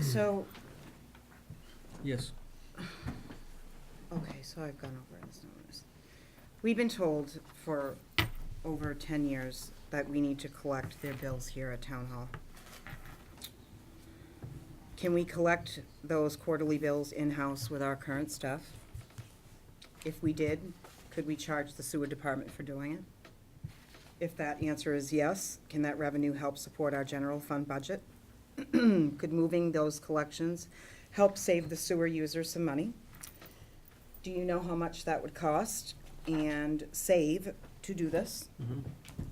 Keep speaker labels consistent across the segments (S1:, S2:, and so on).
S1: So,
S2: Yes.
S1: okay, so I've gone over this notice. We've been told for over ten years that we need to collect their bills here at Town Hall. Can we collect those quarterly bills in-house with our current staff? If we did, could we charge the sewer department for doing it? If that answer is yes, can that revenue help support our general fund budget? Could moving those collections help save the sewer users some money? Do you know how much that would cost and save to do this?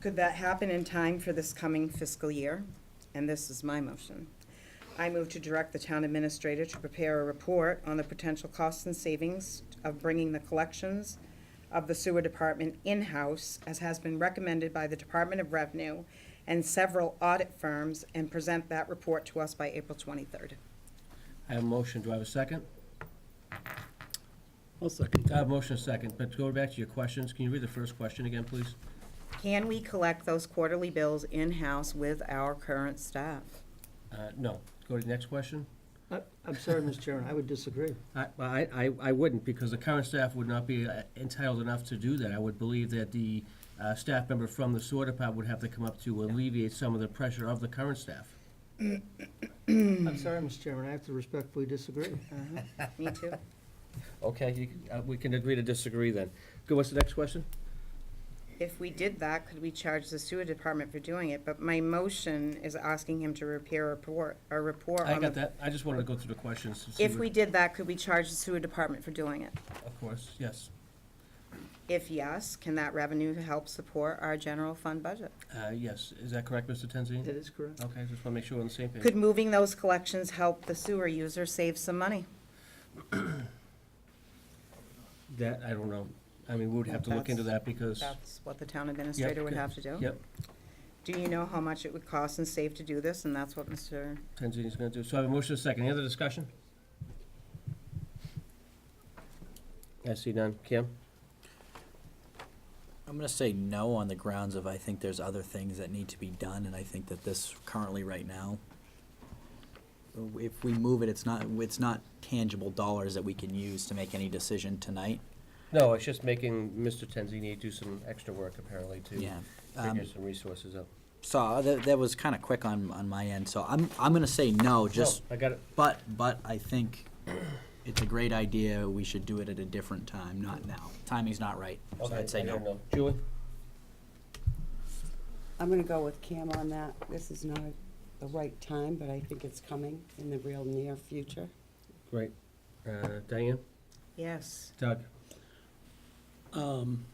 S1: Could that happen in time for this coming fiscal year? And this is my motion. I move to direct the town administrator to prepare a report on the potential costs and savings of bringing the collections of the sewer department in-house, as has been recommended by the Department of Revenue and several audit firms, and present that report to us by April twenty-third.
S2: I have a motion. Do I have a second?
S3: I'll second
S2: I have a motion, a second. But to go back to your questions, can you read the first question again, please?
S1: Can we collect those quarterly bills in-house with our current staff?
S2: Uh, no. Go to the next question.
S3: that. I- I'm sorry, Mr. Chairman, I would disagree.
S2: I, I, I- I wouldn't, because the current staff would not be uh, entitled enough to do that. I would believe that the, uh, staff member from the sewer department would have to come up to alleviate some of the pressure of the current staff.
S3: I'm sorry, Mr. Chairman, I have to respectfully disagree.
S1: Me too.
S2: Okay, you, uh, we can agree to disagree then. Go, what's the next question?
S1: If we did that, could we charge the sewer department for doing it? But my motion is asking him to repair a report, a report on the.
S2: I got that. I just wanted to go through the questions to see.
S1: If
S2: what-
S1: we did that, could we charge the sewer department for doing it?
S2: Of course, yes.
S1: If yes, can that revenue help support our general fund budget?
S2: Uh, yes. Is that correct, Mr. Tenzini?
S3: That is correct.
S2: Okay, just want to make sure we're on the same page.
S1: Could moving those collections help the sewer user save some money?
S2: That, I don't know. I mean, we would have to look into that because.
S1: That's what the town
S2: Yep,
S1: administrator would
S2: good.
S1: have to do.
S2: Yep,
S1: Do you know how much it would cost and save to do this? And that's what Mr.
S2: Tanzini's gonna do. So I have a motion and a second. Any other discussion? I see none. Kim?
S4: I'm gonna say no on the grounds of I think there's other things that need to be done, and I think that this currently right now, if we move it, it's not, it's not tangible dollars that we can use to make any decision tonight.
S2: No, it's just making Mr. Tanzini do some extra work apparently to
S4: Yeah. Um,
S2: figure some resources out.
S4: so uh, that, that was kinda quick on, on my end, so I'm, I'm gonna say no, just,
S2: No, Oh, I got it.
S4: but, but I think it's a great idea, we should do it at a different time, not now. Timing's not right, so
S2: Okay,
S4: I'd say
S2: I
S4: no.
S2: don't know. Julie?
S5: I'm gonna go with Cam on that. This is not the right time, but I think it's coming in the real near future.
S2: Great. Uh, Diane?
S1: Yes.
S2: Doug?
S6: Um,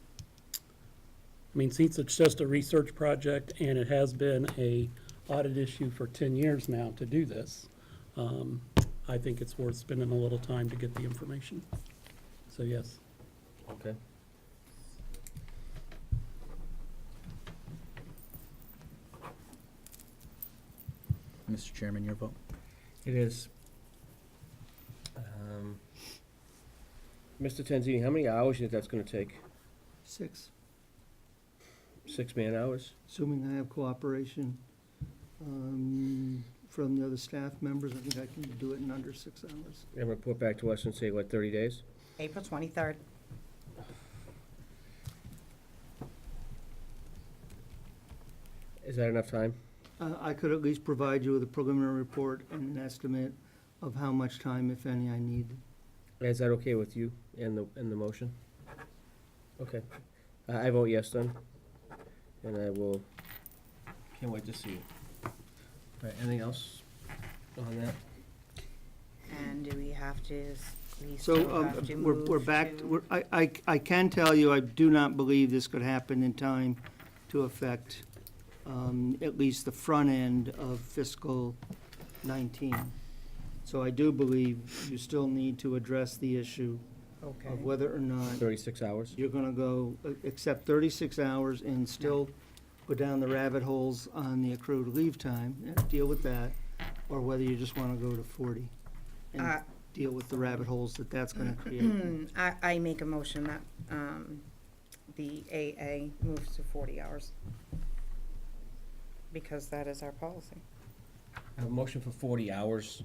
S6: I mean, since it's just a research project and it has been a audit issue for ten years now to do this, um, I think it's worth spending a little time to get the information. So yes,
S2: Okay.
S4: Mr. Chairman, your vote?
S2: It is. Um, Mr. Tanzini, how many hours do you think that's gonna take?
S3: Six,
S2: Six man hours?
S3: assuming I have cooperation um, from the other staff members, I think I can do it in under six hours.
S2: And report back to us and say, what, thirty days?
S1: April twenty-third.
S2: Is that enough time?
S3: I I could at least provide you with a preliminary report and an estimate of how much time, if any, I need.
S2: Is that okay with you and the, and the motion? Okay. I I vote yes then, and I will. Can't wait to see it. All right, anything else on that?
S1: And do we have to, s- we
S3: So
S1: still
S3: um,
S1: have to
S3: we're we're
S1: move
S3: back,
S1: to-
S3: we're- I- I I can tell you, I do not believe this could happen in time to affect um, at least the front end of fiscal 19. So I do believe you still need to address the issue
S1: Okay.
S3: of whether or not
S2: Thirty-six hours?
S3: you're going to go, uh, accept 36 hours and still go down the rabbit holes on the accrued leave time and deal with that, or whether you just want to go to 40
S1: Uh,
S3: and deal with the rabbit holes that that's going to create.
S1: I, I make a motion that, um, the AA moves to forty hours. Because that is our policy.
S2: I have a motion for forty hours